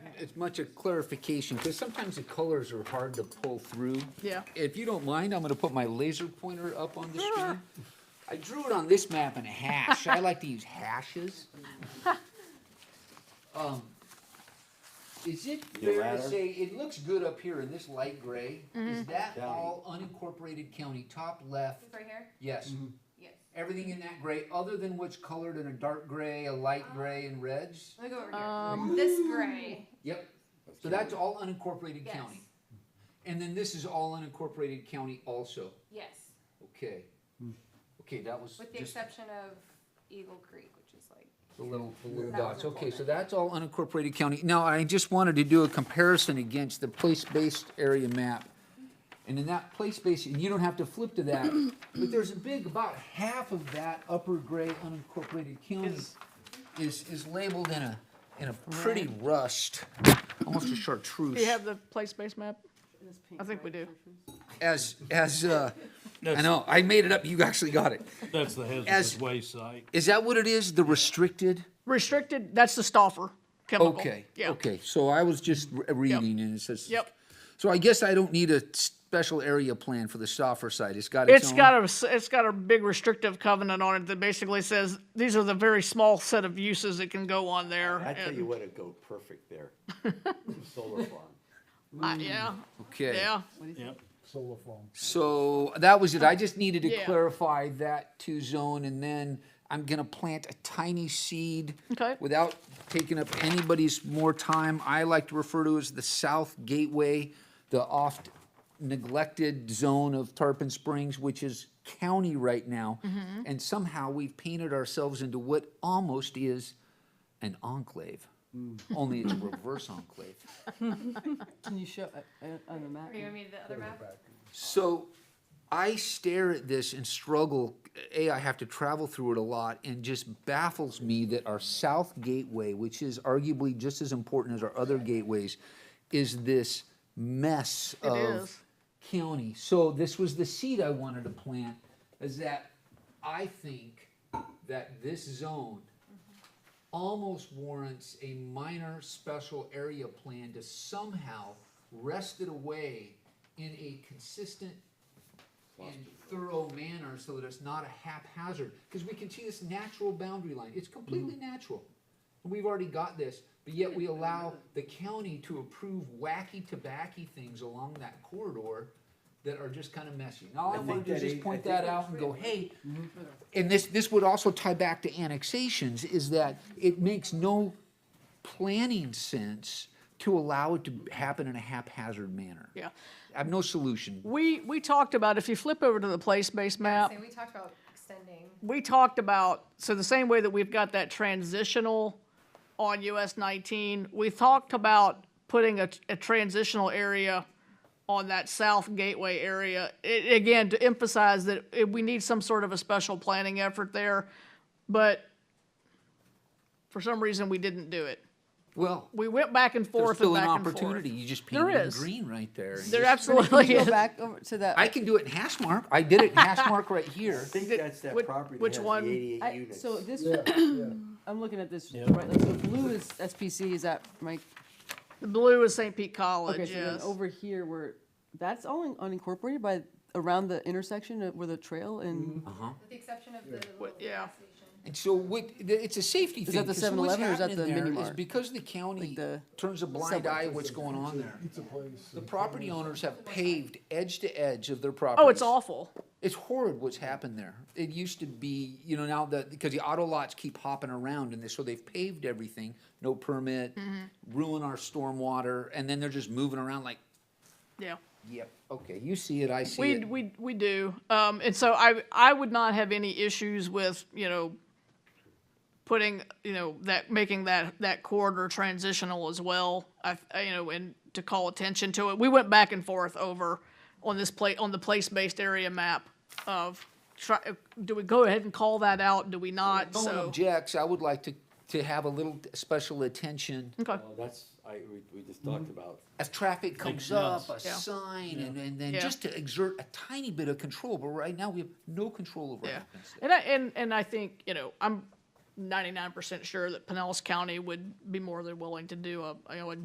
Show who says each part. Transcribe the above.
Speaker 1: as much a clarification, because sometimes the colors are hard to pull through.
Speaker 2: Yeah.
Speaker 1: If you don't mind, I'm gonna put my laser pointer up on the screen. I drew it on this map in a hash, I like to use hashes. Um, Is it
Speaker 3: Your
Speaker 1: fair to
Speaker 3: ladder? Mm-hmm.
Speaker 1: say, it looks good up here in this light gray, is that
Speaker 3: County.
Speaker 1: all unincorporated county, top left,
Speaker 4: Right here?
Speaker 1: yes?
Speaker 3: Mm-hmm.
Speaker 4: Yes.
Speaker 1: Everything in that gray, other than what's colored in a dark gray, a light gray, and reds?
Speaker 4: Let me go over here.
Speaker 2: Um,
Speaker 4: this gray.
Speaker 1: Yep, so that's all unincorporated
Speaker 4: Yes.
Speaker 1: county. And then this is all unincorporated county also,
Speaker 4: Yes.
Speaker 1: okay? Okay, that was
Speaker 4: With the
Speaker 1: just
Speaker 4: exception of Eagle Creek, which is like
Speaker 1: the little, the little
Speaker 4: That was
Speaker 1: dots,
Speaker 4: a
Speaker 1: okay, so
Speaker 4: full
Speaker 1: that's all unincorporated county. Now, I just wanted to do a comparison against the place-based area map. And in that place-based, and you don't have to flip to that, but there's a big, about half of that upper gray unincorporated county
Speaker 2: Is-
Speaker 1: is, is labeled in a, in a pretty rust, almost a chartreuse.
Speaker 2: Do you have the place-based map? I think we do.
Speaker 1: as as uh, I know I made it up. You actually got it.
Speaker 5: That's the
Speaker 1: As-
Speaker 5: hazardous waste site.
Speaker 1: Is that what it is? The restricted?
Speaker 2: Restricted, that's the stoffer chemical.
Speaker 1: Okay.
Speaker 2: Yeah.
Speaker 1: Okay. So I was just re- reading and it says.
Speaker 2: Yep.
Speaker 1: So I guess I don't need a special area plan for the Stauffer site. It's got its,
Speaker 2: It's
Speaker 1: own.
Speaker 2: got a, s- it's got a big restrictive covenant on it that basically says, these are the very small set of uses that can go on there.
Speaker 3: I tell
Speaker 2: and-
Speaker 3: you what'd go perfect there, solar farm.
Speaker 2: I- Yeah,
Speaker 1: okay.
Speaker 2: yeah.
Speaker 5: Yep.
Speaker 6: solar farm.
Speaker 1: So that was it. I just needed to
Speaker 2: Yeah.
Speaker 1: clarify that to zone, and then I'm gonna plant a tiny seed.
Speaker 2: Okay.
Speaker 1: Without taking up anybody's more time, I like to refer to as the South Gateway, the oft neglected zone of Tarpon Springs, which is county right now.
Speaker 2: Mm-hmm.
Speaker 1: And somehow we've painted ourselves into what almost is an enclave, only it's a reverse enclave.
Speaker 7: Can you show, uh, uh, on the map?
Speaker 4: Or you want me to the other map?
Speaker 1: So I stare at this and struggle. A, I have to travel through it a lot and just baffles me that our South Gateway, which is arguably just as important as our other gateways, is this mess
Speaker 2: It
Speaker 1: of
Speaker 2: is.
Speaker 1: county. So this was the seed I wanted to plant is that I think that this zone almost warrants a minor special area plan to somehow wrest it away in a consistent and thorough manner so that it's not a haphazard, because we can see this natural boundary line, it's completely
Speaker 3: Mm-hmm.
Speaker 1: natural. And we've already got this, but yet we allow the county to approve wacky tobacky things along that corridor that are just kind of messy. Now, I
Speaker 3: think
Speaker 1: wanted to
Speaker 3: that
Speaker 1: just
Speaker 3: is- I
Speaker 1: point
Speaker 3: think
Speaker 1: that out and go, hey, and this, this would also tie back to annexations, is that it makes no planning sense to allow it to happen in a haphazard manner.
Speaker 2: Yeah.
Speaker 1: I have no solution.
Speaker 2: We, we talked about, if you flip over to the place-based map,
Speaker 4: Say, we talked about extending.
Speaker 2: we talked about, so the same way that we've got that transitional on US nineteen, we talked about putting a, a transitional area on that south gateway area. It, again, to emphasize that it, we need some sort of a special planning effort there, but for some reason, we didn't do it.
Speaker 1: Well,
Speaker 2: We went back and
Speaker 1: there's
Speaker 2: forth and
Speaker 1: still an
Speaker 2: back and forth.
Speaker 1: opportunity. You just
Speaker 2: There
Speaker 1: painted it
Speaker 2: is.
Speaker 1: green right there. and
Speaker 2: There
Speaker 1: just-
Speaker 2: absolutely
Speaker 7: Go
Speaker 2: is.
Speaker 7: back over to that.
Speaker 1: I can do it in hash mark. I did it in hash mark right here.
Speaker 3: I think
Speaker 2: Did-
Speaker 3: that's that
Speaker 2: which-
Speaker 3: property
Speaker 2: which
Speaker 3: that has
Speaker 2: one?
Speaker 3: the eighty-eight
Speaker 7: I-
Speaker 3: units.
Speaker 7: So this,
Speaker 6: Yeah, yeah.
Speaker 7: I'm looking at this, right, like, so blue is SPC, is that Mike?
Speaker 2: The blue is St. Pete College,
Speaker 7: Okay, so then
Speaker 2: Oh, yes.
Speaker 7: over here where, that's all in- unincorporated by, around the intersection of- where the trail and,
Speaker 4: With the exception of the little
Speaker 2: yeah.
Speaker 4: gas station.
Speaker 1: And so what, th- it's a safety thing.
Speaker 7: that the
Speaker 1: 'cause what's
Speaker 7: 7-Eleven or is that
Speaker 1: happening
Speaker 7: the
Speaker 1: there
Speaker 7: mini
Speaker 1: is
Speaker 7: mart?
Speaker 1: Because the county
Speaker 7: the
Speaker 1: turns a blind
Speaker 7: subway.
Speaker 1: eye what's going on there.
Speaker 6: It's a place.
Speaker 1: The property owners have paved edge to edge of their property.
Speaker 2: Oh, it's awful.
Speaker 1: It's horrid what's happened there. It used to be, you know, now that, because the auto lots keep hopping around and they, so they've paved everything, no permit,
Speaker 2: Mm-hmm.
Speaker 1: ruin our stormwater, and then they're just moving around like,
Speaker 2: Yeah.
Speaker 1: yep, okay, you see it, I see
Speaker 2: We,
Speaker 1: it.
Speaker 2: we, we do. Um, and so I, I would not have any issues with, you know, putting, you know, that, making that, that corridor transitional as well. I, I, you know, and to call attention to it. We went back and forth over on this pla, on the place-based area map of try, do we go ahead and call that out? Do we not?
Speaker 1: No one
Speaker 2: So,
Speaker 1: objects, I would like to, to have a little special attention.
Speaker 2: okay.
Speaker 3: Oh, That's, I, we, we just talked about,
Speaker 1: As traffic comes
Speaker 5: Makes
Speaker 1: up, a
Speaker 5: sense.
Speaker 2: Yeah.
Speaker 1: sign, and, and then
Speaker 2: Yeah.
Speaker 1: just to exert a tiny bit of control, but right now we have no control over what
Speaker 2: Yeah,
Speaker 1: happens there.
Speaker 2: and I, and, and I think, you know, I'm ninety-nine percent sure that Pinellas County would be more than willing to do a, you know, a